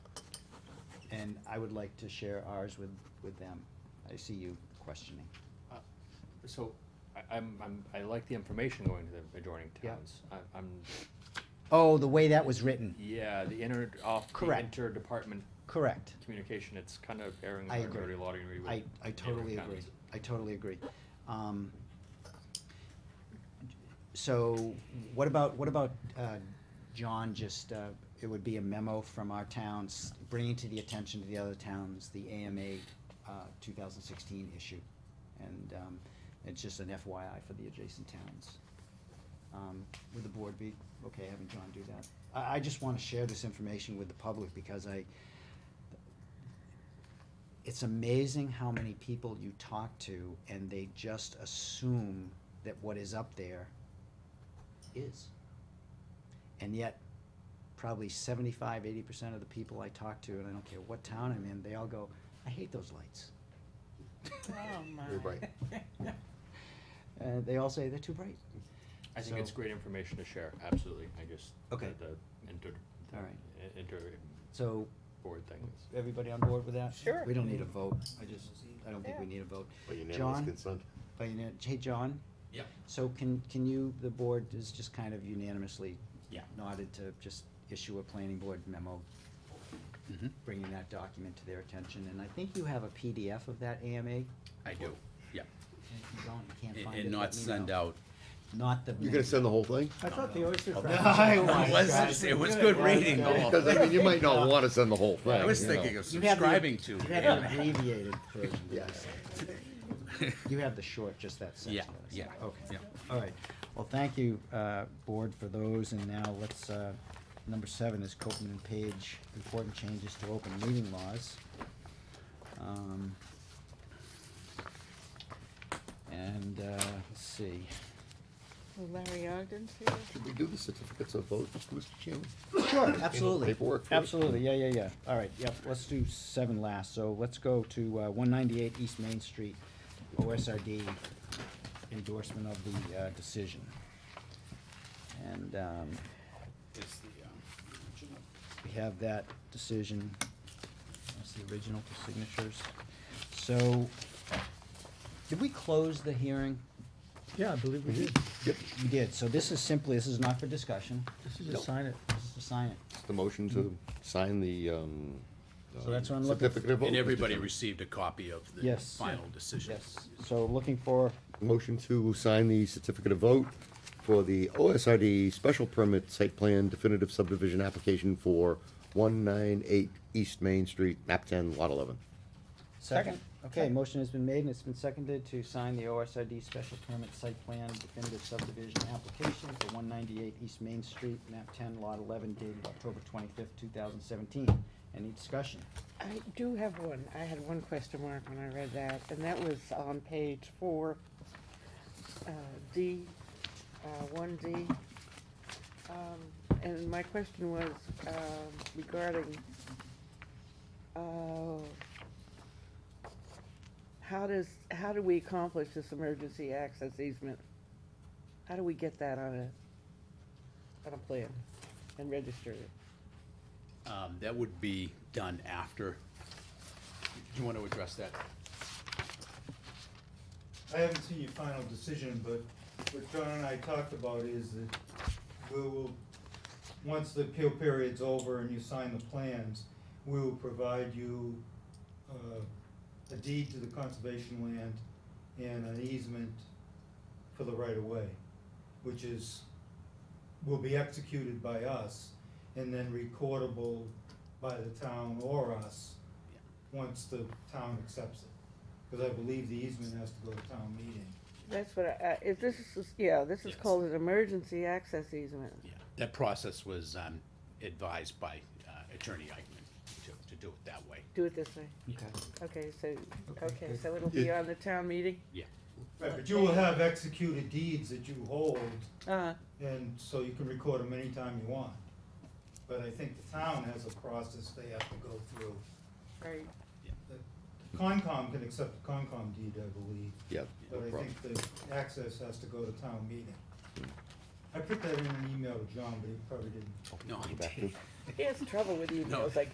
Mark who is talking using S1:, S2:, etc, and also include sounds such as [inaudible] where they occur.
S1: and I would like to share ours with, with them. I see you questioning.
S2: Uh, So, I, I'm, I'm, I like the information going to the adjoining
S1: Yeah.
S2: towns. I, I'm,
S1: Oh, the way that was written,
S2: yeah, the inter, off, the
S1: Correct.
S2: interdepartment
S1: correct.
S2: communication, it's kind of airing
S1: I
S2: the
S1: agree.
S2: dirty laundry with.
S1: I, I totally
S2: neighboring
S1: agree,
S2: towns.
S1: I totally agree. Um, So, what about, what about, uh, John, just, uh, it would be a memo from our towns, bringing to the attention of the other towns, the AMA, uh, two thousand sixteen issue. And, um, it's just an FYI for the adjacent towns. Um, would the board be okay having John do that? I, I just wanna share this information with the public because I, it's amazing how many people you talk to and they just assume that what is up there is. And yet, probably 75, 80% of the people I talk to, and I don't care what town I'm in, they all go, I hate those lights. [laughs]
S3: Oh, my.
S4: You're right.
S1: Uh, they all say they're too bright.
S2: I think
S1: So-
S2: it's great information to share, absolutely, I just.
S1: Okay.
S2: The the inter, the
S1: All right.
S2: i- inter
S1: So,
S2: board thing is.
S1: everybody on board with that?
S3: Sure.
S1: We don't need a vote. I just, I don't think we
S3: Yeah.
S1: need a vote.
S4: By unanimous
S1: John?
S4: consent.
S1: By unan- hey, John?
S5: Yep.
S1: So can, can you, the board is just kind of unanimously
S5: Yeah.
S1: nodded to just issue a planning board memo,
S5: Mm-hmm.
S1: bringing that document to their attention, and I think you have a PDF of that AMA, and
S5: I do, yeah.
S1: if you don't, you can't
S5: And-
S1: find it,
S5: And
S1: let
S5: not
S1: me
S5: send
S1: know.
S5: out.
S1: Not the.
S4: You're gonna
S1: main-
S4: send the whole
S5: [laughs]
S4: thing?
S6: I thought the oyster
S5: Of-
S6: cracker.
S5: [laughs]
S1: Oh my
S5: It was-
S1: gosh.
S5: It was good reading
S4: Because,
S5: though.
S4: I mean, you might not wanna send the whole thing.
S5: I was
S4: you know.
S5: thinking of
S1: You have the-
S5: subscribing to.
S1: You have an abbreviated version. of
S4: Yeah.
S1: this. You have the short, just that
S5: Yeah,
S1: section. of it.
S5: yeah,
S1: Okay.
S5: yeah.
S1: All right, well, thank you, uh, board, for those, and now let's, uh, number seven is Copman and Page, important changes to open meeting laws. Um, And, uh, let's see,
S3: Larry Ogden's here.
S4: Should we do the certificates of vote, Mr. Chairman?
S1: sure, absolutely.
S4: Paperwork for it.
S1: Absolutely, yeah, yeah, yeah, all right, yep, let's do seven last, so let's go to, uh, one ninety-eight East Main Street, OSRD endorsement of the, uh, decision. And, um,
S5: It's the, um, original.
S1: we have that decision. That's the original for signatures. So, did we close the hearing?
S6: Yeah, I believe we did.
S1: We did, so this is simply, this is not for discussion,
S6: This is just sign it.
S1: this is to sign it.
S4: It's the motion to
S5: Hmm.
S4: sign the, um.
S1: So that's what I'm
S4: um,
S1: looking for.
S4: Certificate of vote.
S5: And
S4: Mr.
S5: everybody
S4: Chairman.
S5: received a copy of the
S1: Yes.
S5: final decision.
S1: Yes, so looking for,
S4: Motion to sign the certificate of vote for the OSRD special permit site plan definitive subdivision application for one nine eight East Main Street, map ten, lot eleven.
S1: Second.
S6: Second.
S1: Okay, motion has been made and it's been seconded to sign the OSID special permit site plan definitive subdivision application for one ninety-eight East Main Street, map ten, lot eleven, dated October twenty-fifth, two thousand seventeen. Any discussion?
S3: I do have one, I had one question mark when I read that, and that was on page four, uh, D, uh, one D. Um, and my question was, um, regarding, uh, how does, how do we accomplish this emergency access easement? How do we get that on a, on a plan and register it?
S5: Um, that would be done after. Do you want to address that?
S7: I haven't seen your final decision, but what John and I talked about is that we will, once the appeal period's over and you sign the plans, we will provide you, uh, a deed to the conservation land and an easement for the right of way, which is, will be executed by us and then recordable by the town or us once the town accepts it. Because I believe the easement has to go to town meeting.
S3: That's what I, I- if this is, yeah, this is
S5: Yes.
S3: called an emergency access easement.
S5: Yeah, that process was, um, advised by, uh, Attorney Eichman to, to do it that way.
S3: Do it this way.
S1: Okay.
S3: Okay, so, okay, so it'll be
S4: Yeah.
S3: on the town meeting?
S5: Yeah.
S7: Right, but you will have executed deeds that you hold,
S3: Uh,
S7: and so you can record them anytime you want. But I think the town has a process they have to go through.
S3: right.
S7: The Concom can accept the Concom deed, I believe,
S4: Yeah, no
S7: but I
S4: problem.
S7: think the access has to go to town meeting. I put that in an email to John, but he probably didn't
S5: No, I
S4: Back
S5: did
S4: to-
S3: He has trouble with emails, I